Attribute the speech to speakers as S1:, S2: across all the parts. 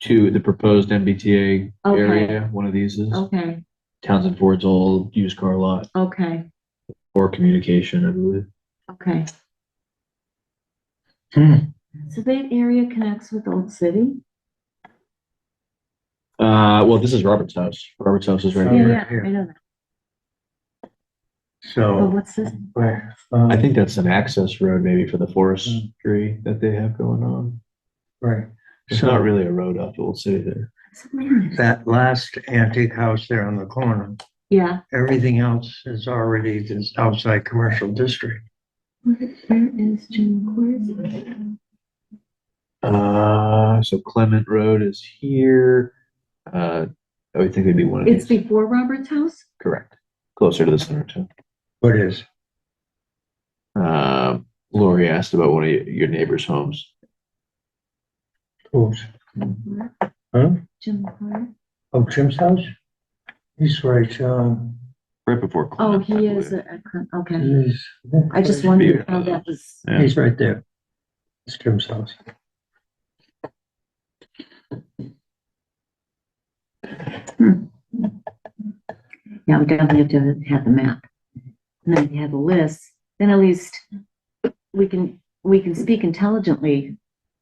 S1: to the proposed MBTA
S2: Okay. Oh.
S1: area. One of these is
S2: Okay,
S1: Townsend Ford's old used car lot
S2: okay,
S1: or communication, I believe.
S2: okay.
S1: Hmm.
S2: So that area connects with Old City?
S1: Uh, well, this is Robert's house. Robert's house is right
S2: Yeah,
S3: Oh,
S1: here.
S2: yeah,
S3: right here. Oh.
S2: I know that.
S4: Oh,
S2: But
S3: So.
S2: what's this?
S3: where,
S1: I
S3: um,
S1: think that's an access road maybe for the forestry that they have going on.
S3: Right.
S1: It's not really a road up to Old City there.
S2: So wait a minute.
S3: That last antique house there on the corner,
S2: Yeah,
S3: everything else is already this outside commercial district.
S2: where where is Jim Court?
S1: Uh, so Clement Road is here. Uh, I would think it'd be one of
S2: It's
S1: these.
S2: before Robert's house?
S1: Correct. Closer to the center too.
S3: What is?
S1: Um, Lori asked about one of your your neighbor's homes.
S3: Oops. Huh?
S2: Jim Court?
S3: Oh, Jim's house? He's right, um,
S1: Right before
S2: Oh,
S1: Clement. I
S2: he is,
S1: believe.
S2: a- a con- okay.
S3: he's.
S2: I just
S1: one-
S2: wondered how that was,
S1: Yeah.
S3: He's right there. It's Jim's house.
S2: yeah, we definitely have to have the map. And then if you have the list, then at least we can, we can speak intelligently,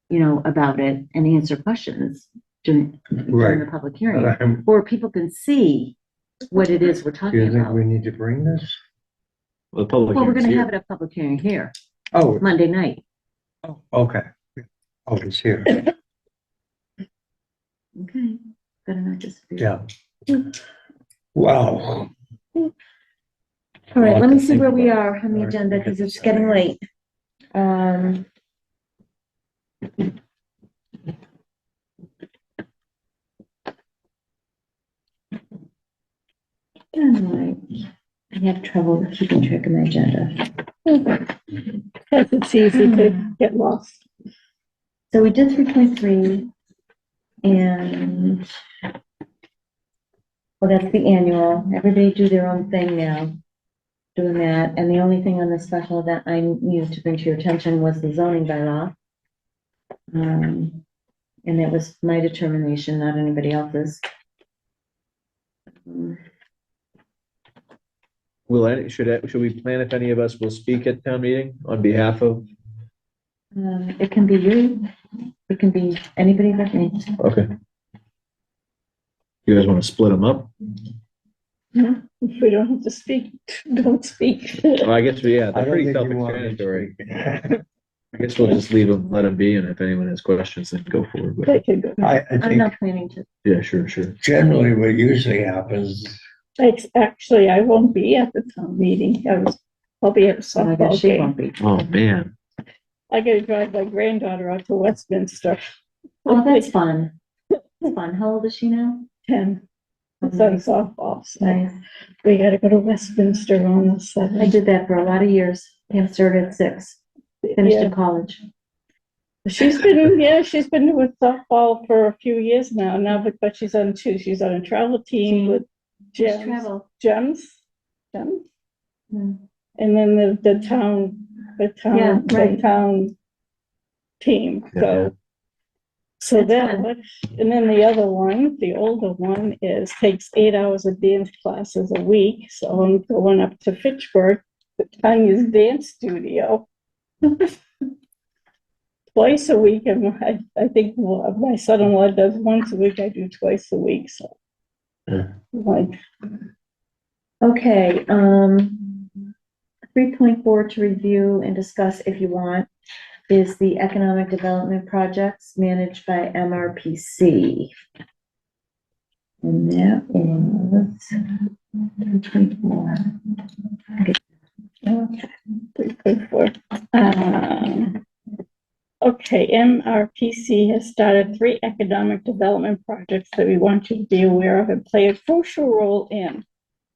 S2: you know, about it and answer questions during, during the
S3: Right.
S2: public
S3: But
S2: hearing.
S3: I'm-
S2: Or people can see what it is we're
S3: Um, Do
S2: talking
S3: you think
S2: about.
S3: we need to bring this?
S1: Well, the public
S2: Well, we're
S1: hearing's
S2: gonna
S1: here.
S2: have it at public hearing here,
S3: Oh,
S2: Monday night.
S3: okay. Oh, it's here.
S2: Okay, better not just.
S3: Yeah. Wow.
S4: All right, let
S3: Lot to
S4: me see
S3: think
S4: where we
S3: about.
S4: are on the
S3: Alright,
S4: agenda,
S3: we
S4: because
S3: can
S4: it's getting
S3: decide.
S4: late. Um. Alright, I have trouble keeping track of my agenda. Hmm.
S5: It's easy to get lost.
S4: So we did three point three, and well, that's the annual, everybody do their own thing now, doing that, and the only thing on the special that I needed to bring to your attention was the zoning bylaw. Um, and that was my determination, not anybody else's. Um,
S1: Will any, should, I- should we plan if any of us will speak at town meeting on behalf of?
S4: uh, it can be you, it can be anybody but me.
S1: Okay. You guys want to split them up?
S5: If we don't have to speak, don't speak.
S1: Well, I guess, yeah, they're
S3: I don't
S1: pretty
S3: think you want me to
S1: self-explanatory.
S3: speak.
S1: I guess we'll just leave them, let them be, and if anyone has questions, then go forward. with
S5: They
S1: it.
S5: could go.
S3: I, I
S4: I'm
S3: think
S4: not planning to,
S1: Yeah, sure, sure.
S3: generally what usually happens,
S5: It's actually, I won't be at the town meeting. I was, I'll be at
S4: I
S5: a
S4: guess
S5: softball
S4: she
S5: game.
S4: won't be.
S1: Oh, man.
S5: I gotta drive my granddaughter out to Westminster.
S4: Well, Oh, that's fun, It's fun, how old is she now?
S5: Ten, it's on softball, so
S4: Nice.
S5: we gotta go to Westminster on the
S4: I
S5: seventh.
S4: did that for a lot of years. Pam started at six, finished
S5: Yeah,
S4: in college.
S5: she's been, yeah, she's been with softball for a few years now, now, but, but she's on two, she's on a travel team with
S4: Just
S5: Gems,
S4: travel.
S5: Gems, Gems.
S4: Mm.
S5: And then the, the town, the
S4: Mm-hmm. Yeah,
S5: town, the
S4: right.
S5: town team,
S1: Yeah.
S5: so. So
S4: That's
S5: that,
S4: fun.
S5: one- and then the other one, the older one is, takes eight hours of dance classes a week, so I'm going up to Fitchburg, to Tanya's dance studio. Twice a week, and I, I think well, my son-in-law does once a week, I do twice a week, so.
S1: Yeah.
S5: Like,
S4: Okay, um, three point four to review and discuss if you want is the economic development projects managed by MRPC. And that is twenty-four.
S5: Three point four. Um, Okay, MRPC has started three economic development projects that we want you to be aware of and play a crucial role in.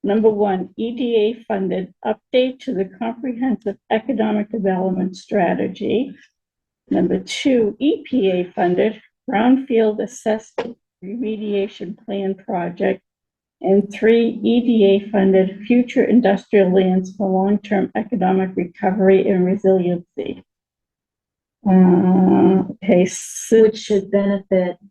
S5: Number one, EDA funded update to the comprehensive economic development strategy. Number two, EPA funded brownfield assessment remediation plan project and three, E EDA-funded future industrial lands for long-term economic recovery and resiliency. Uh, okay, so-
S4: Which should benefit